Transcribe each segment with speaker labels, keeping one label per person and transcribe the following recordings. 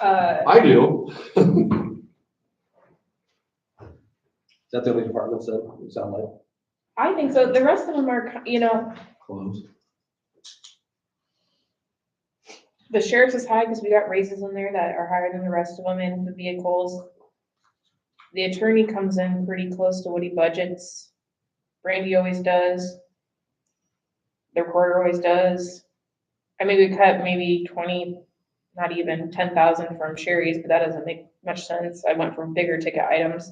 Speaker 1: Uh,
Speaker 2: I do.
Speaker 3: that the only departments that you sound like
Speaker 1: I think so. The rest of them are, ki- you know,
Speaker 3: close?
Speaker 1: the sheriff's is high because we got raises in there that are higher than the rest of them in the vehicles. The attorney comes in pretty close to what he budgets. Randy always does. The recorder always does. I mean, we cut maybe twenty, not even ten thousand from Sherry's, but that doesn't make much sense. I went from bigger ticket items.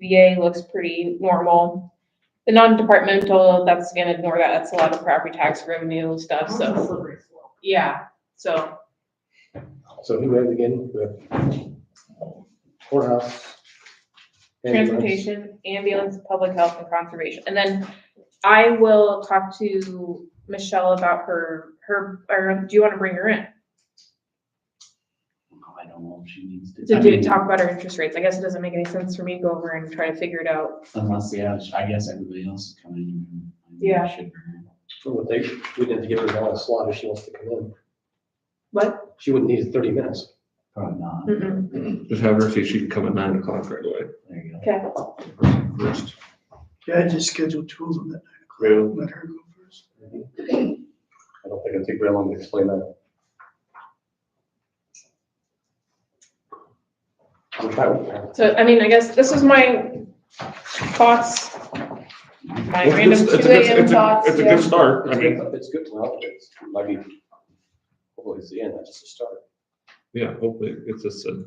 Speaker 1: VA looks pretty normal. The non-departmental, that's gonna ignore that. That's a lot of property tax revenue stuff, so,
Speaker 4: Slippery slope.
Speaker 1: yeah, so.
Speaker 3: So who had again? The Courthouse. ambulance.
Speaker 1: Transportation, ambulance, public health and conservation. And then I will talk to Michelle about her, her, or do you want to bring her in?
Speaker 5: I don't know if she needs to.
Speaker 1: To
Speaker 5: I
Speaker 1: do,
Speaker 5: mean,
Speaker 1: talk about our interest rates. I guess it doesn't make any sense for me to go over and try to figure it out.
Speaker 5: Unless, yeah, I guess everybody else is coming. in.
Speaker 1: Yeah.
Speaker 5: Should be.
Speaker 3: Well, they, we didn't give her the last slot if she wants to come in.
Speaker 1: What?
Speaker 3: She wouldn't need thirty minutes.
Speaker 5: Probably not.
Speaker 1: Mm-mm.
Speaker 2: Just have her see if she can come at nine o'clock right away.
Speaker 5: There you go.
Speaker 1: Okay.
Speaker 2: First.
Speaker 6: Yeah, I just scheduled two of them at nine
Speaker 3: Really?
Speaker 6: o'clock. Let her go first.
Speaker 3: I don't think it'd take very long to explain that. I'm fine with that.
Speaker 1: So, I mean, I guess this is my thoughts. My
Speaker 2: Well, it's-
Speaker 1: random
Speaker 2: it's a
Speaker 1: two
Speaker 2: good-
Speaker 1: AM
Speaker 2: it's a-
Speaker 1: thoughts.
Speaker 2: It's a
Speaker 1: yeah.
Speaker 2: good start. I mean,
Speaker 3: It's good, well, it's, might be, hopefully it's the end, that's just a start.
Speaker 2: yeah, hopefully it's just a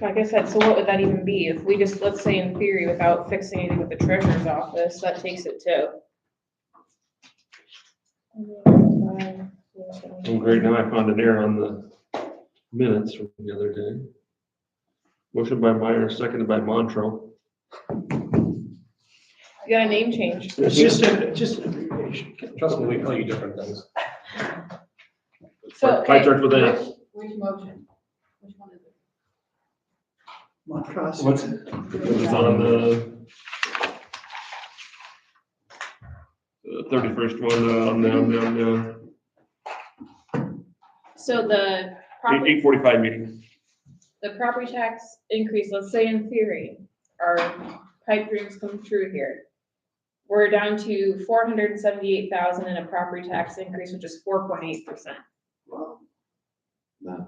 Speaker 1: Like I said, so what would that even be? If we just, let's say in theory, without fixing anything with the treasurer's office, that takes it to.
Speaker 2: Well, great, now I found an error on the minutes from the other day. Motion by Meyer, seconded by Montrose.
Speaker 1: You got a name change.
Speaker 6: It's just, a- just an abbreviation.
Speaker 3: Trust me, we tell you different things.
Speaker 1: So,
Speaker 2: Five
Speaker 1: okay,
Speaker 2: charge with a,
Speaker 4: Which, which motion? Which one is it?
Speaker 6: Montrose.
Speaker 2: What's- it was on the thirty-first one, uh, on down, down, down,
Speaker 1: so the
Speaker 2: eight,
Speaker 1: property,
Speaker 2: eight forty-five meeting.
Speaker 1: the property tax increase, let's say in theory, our pipe dreams come true here. We're down to four hundred and seventy-eight thousand in a property tax increase, which is four point eight percent.
Speaker 5: Well, No.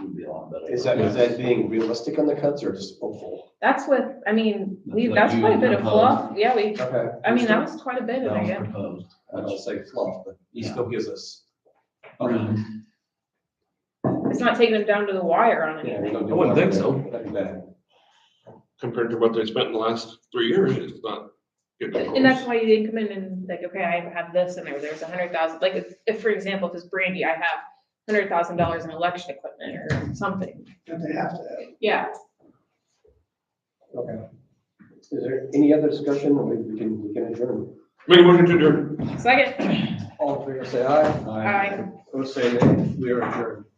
Speaker 5: Would be a lot better.
Speaker 3: Is that, is that being realistic on the cuts or just hopeful?
Speaker 1: That's what, I mean, we,
Speaker 5: That's what
Speaker 1: that's
Speaker 5: you
Speaker 1: quite a bit of fluff.
Speaker 5: proposed.
Speaker 1: Yeah, we,
Speaker 3: Okay.
Speaker 1: I mean, that was quite a bit
Speaker 5: That
Speaker 1: of it,
Speaker 5: was
Speaker 1: yeah.
Speaker 5: proposed.
Speaker 3: I don't say fluff, but he
Speaker 5: Yeah.
Speaker 3: still gives us.
Speaker 5: Around.
Speaker 1: It's not taking them down to the wire on
Speaker 3: Yeah,
Speaker 1: anything.
Speaker 3: we don't do
Speaker 2: I wouldn't think so.
Speaker 3: nothing bad.
Speaker 2: Compared to what they spent in the last three years, it's not getting
Speaker 1: And that's
Speaker 2: close.
Speaker 1: why you didn't come in and like, okay, I have this and there, there's a hundred thousand, like if, if, for example, if it's Brandy, I have hundred thousand dollars in election equipment or something.
Speaker 6: That they have to have.
Speaker 1: Yeah,
Speaker 3: Okay. Is there any other discussion or maybe we can, we can adjourn?
Speaker 2: Make a motion to adjourn.
Speaker 1: second,
Speaker 3: All in favor, say aye.
Speaker 1: I.
Speaker 3: Opposed, say nay. We are adjourned.